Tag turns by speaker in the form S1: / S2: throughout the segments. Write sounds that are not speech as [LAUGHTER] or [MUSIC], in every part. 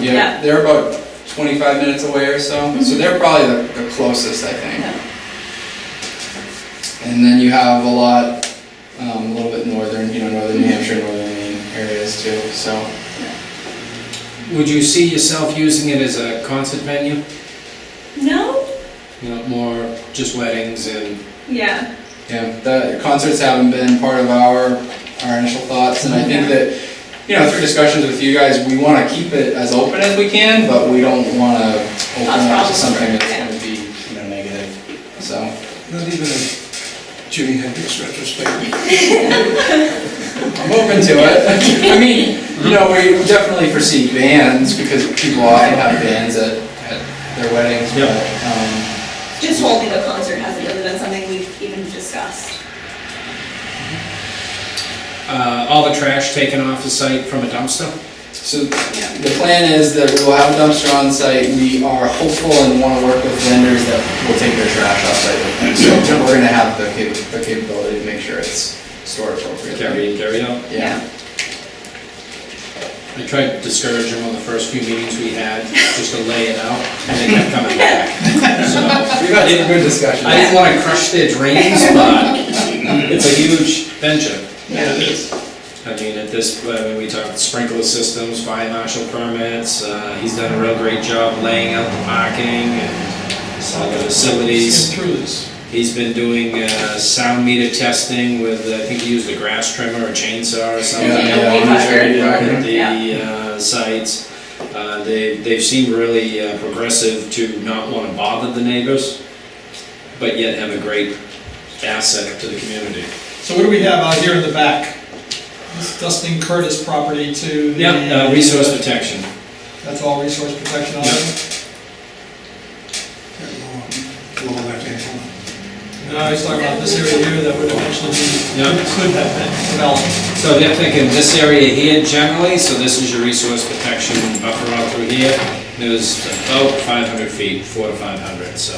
S1: Yeah.
S2: They're about 25 minutes away or so, so they're probably the- the closest, I think.
S1: Yeah.
S2: And then you have a lot, um, a little bit northern, you know, northern New Hampshire, northern Maine areas too, so.
S3: Would you see yourself using it as a concert venue?
S1: No?
S3: You know, more just weddings and,
S1: Yeah.
S2: Yeah, the concerts haven't been part of our, our initial thoughts, and I think that, you know, through discussions with you guys, we wanna keep it as open as we can, but we don't wanna open
S1: Cause
S2: up to
S1: problems,
S2: something that's
S1: yeah.
S2: gonna be, you know, negative, so.
S4: Not even a Jimi Hendrix retrospective.
S2: I'm open to it. I mean, you know, we definitely foresee bands, because people often have bands at, at their weddings, but, um,
S1: Just holding a concert hasn't really been something we've even discussed.
S3: uh, all the trash taken off the site from a dumpster?
S2: so The plan is that we will have a dumpster on site, we are hopeful and want to work with vendors that will take their trash off site. with them. So we're gonna have the cap- the capability to make sure it's stored appropriately.
S3: Carry in, carry out.
S2: Yeah,
S3: I tried to discourage them on the first few meetings we had, just to lay it out, and they kept coming back. [LAUGHS] So,
S2: we've had some good discussions.
S3: I didn't wanna crush their dreams, but it's a huge venture.
S2: Yeah.
S3: I mean, at this, I mean, we talked sprinkler systems, fire marshal permits, uh, he's done a real great job laying out the parking and some of the facilities.
S4: Skim Through this.
S3: He's been doing uh, sound meter testing with, I think he used a grass trimmer or chainsaw or something.
S2: Yeah, yeah,
S1: Only
S2: I'm sure you
S1: fiber.
S2: are.
S3: At the uh, sites. Uh, They, they've seemed really uh, progressive to not want to bother the neighbors, but yet have a great asset to the community.
S5: So what do we have out here in the back? This Dustin Curtis property to the...
S3: Yep, uh, resource protection.
S5: That's all resource protection on it?
S4: That lower- Lower left-hand corner.
S5: No, he's talking about this area here that would eventually be,
S3: Yep.
S5: could have been developed.
S3: So they're thinking this area here generally, so this is your resource protection buffer out through here. It was about 500 feet, 4 to 500, so.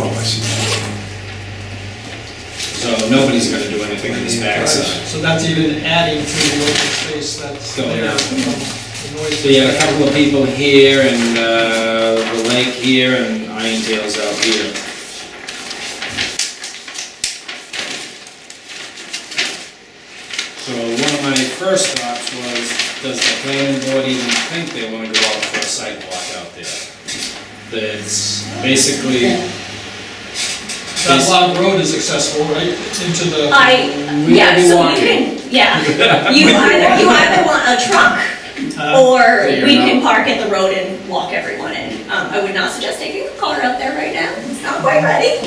S4: Oh, I see.
S3: So nobody's gonna do anything on this backside.
S5: So that's even adding to the open space that's
S3: Going
S5: there.
S3: up.
S5: The noise-
S3: So you have a uh, couple of people here and uh, the lake here and Iron Tail's out here. So one of my first thoughts was, does the planning board even think they wanna go out for a sidewalk out there? That's basically,
S5: That long road is accessible, right, into the...
S1: I,
S3: We
S1: yeah,
S3: will be
S1: so we
S3: walking.
S2: [LAUGHS]
S1: can, yeah. You either, you either want a truck
S5: Uh,
S1: or
S2: Figure
S1: we
S2: it out.
S1: can park at the road and walk everyone in. Um, I would not suggest taking a car out there right now. It's not quite ready.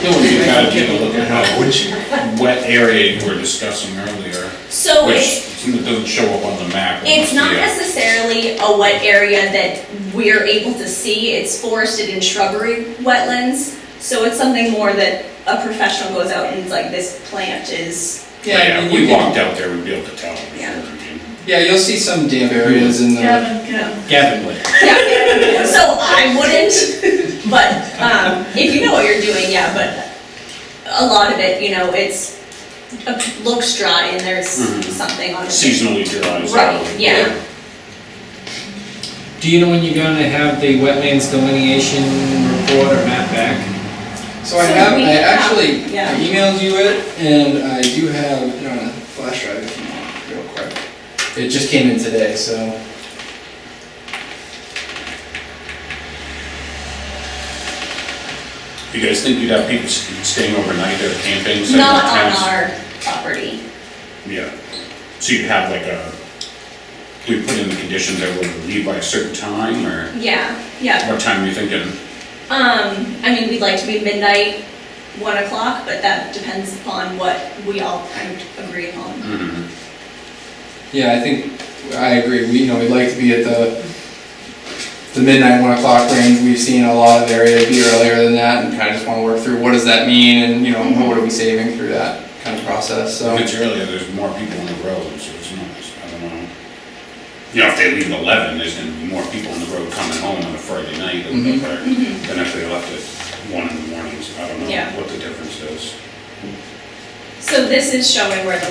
S6: You gotta take a look at how, which wet area you were discussing earlier,
S1: So
S6: which
S1: Oh, it's,
S6: doesn't show up on the map.
S1: it's not
S6: Yeah.
S1: necessarily a wet area that we're able to see. It's forested and shrubbery wetlands. So it's something more that a professional goes out and is like, this plant is,
S2: Yeah, I
S6: Yeah,
S2: mean,
S6: if
S2: you
S6: we
S2: can-
S6: walked out there, we'd be able to tell.
S1: Yeah.
S2: yeah, you'll see some damp areas in the,
S1: you know,
S3: Gavin Lake.
S1: Yeah, so I wouldn't, but, um, if you know what you're doing, yeah, but a lot of it, you know, it's, it looks dry and there's
S6: Mhm.
S1: something on it.
S6: Seasonally dry. so-
S1: Right, yeah.
S3: Do you know when you're gonna have the wetlands delineation report or map back?
S2: so I
S1: So
S2: have,
S1: we
S2: I
S1: have-
S2: actually
S1: yeah.
S2: I emailed you it, and I do have, it on a flash drive if you want, real quick. It just came in today, so.
S6: You guys think you'd have people st- staying overnight or camping? setting
S1: Not
S6: up
S1: on
S6: tents?
S1: our property,
S6: Yeah, so you'd have like a, we put in the conditions that would leave by a certain time, or
S1: yeah, yeah.
S6: what time are you thinking?
S1: Um, I mean, we'd like to be midnight, one o'clock, but that depends upon what we all kind of agree on.
S6: Mhm.
S2: Yeah, I think, I agree, we, you know, we'd like to be at the, the midnight, one o'clock range, we've seen a lot of area be earlier than that, and kinda just wanna work through, what does that mean, and, you know, what are we saving through that kind of process, so.
S6: If it's earlier, there's more people on the road, so it's not, I don't know. You know, if they leave at eleven, there's gonna be more people on the road coming home on a Friday night than
S2: Mhm.
S6: if they- than if they left at one in the morning, so I don't know
S1: Yeah.
S6: what the difference is.
S1: So this is showing where the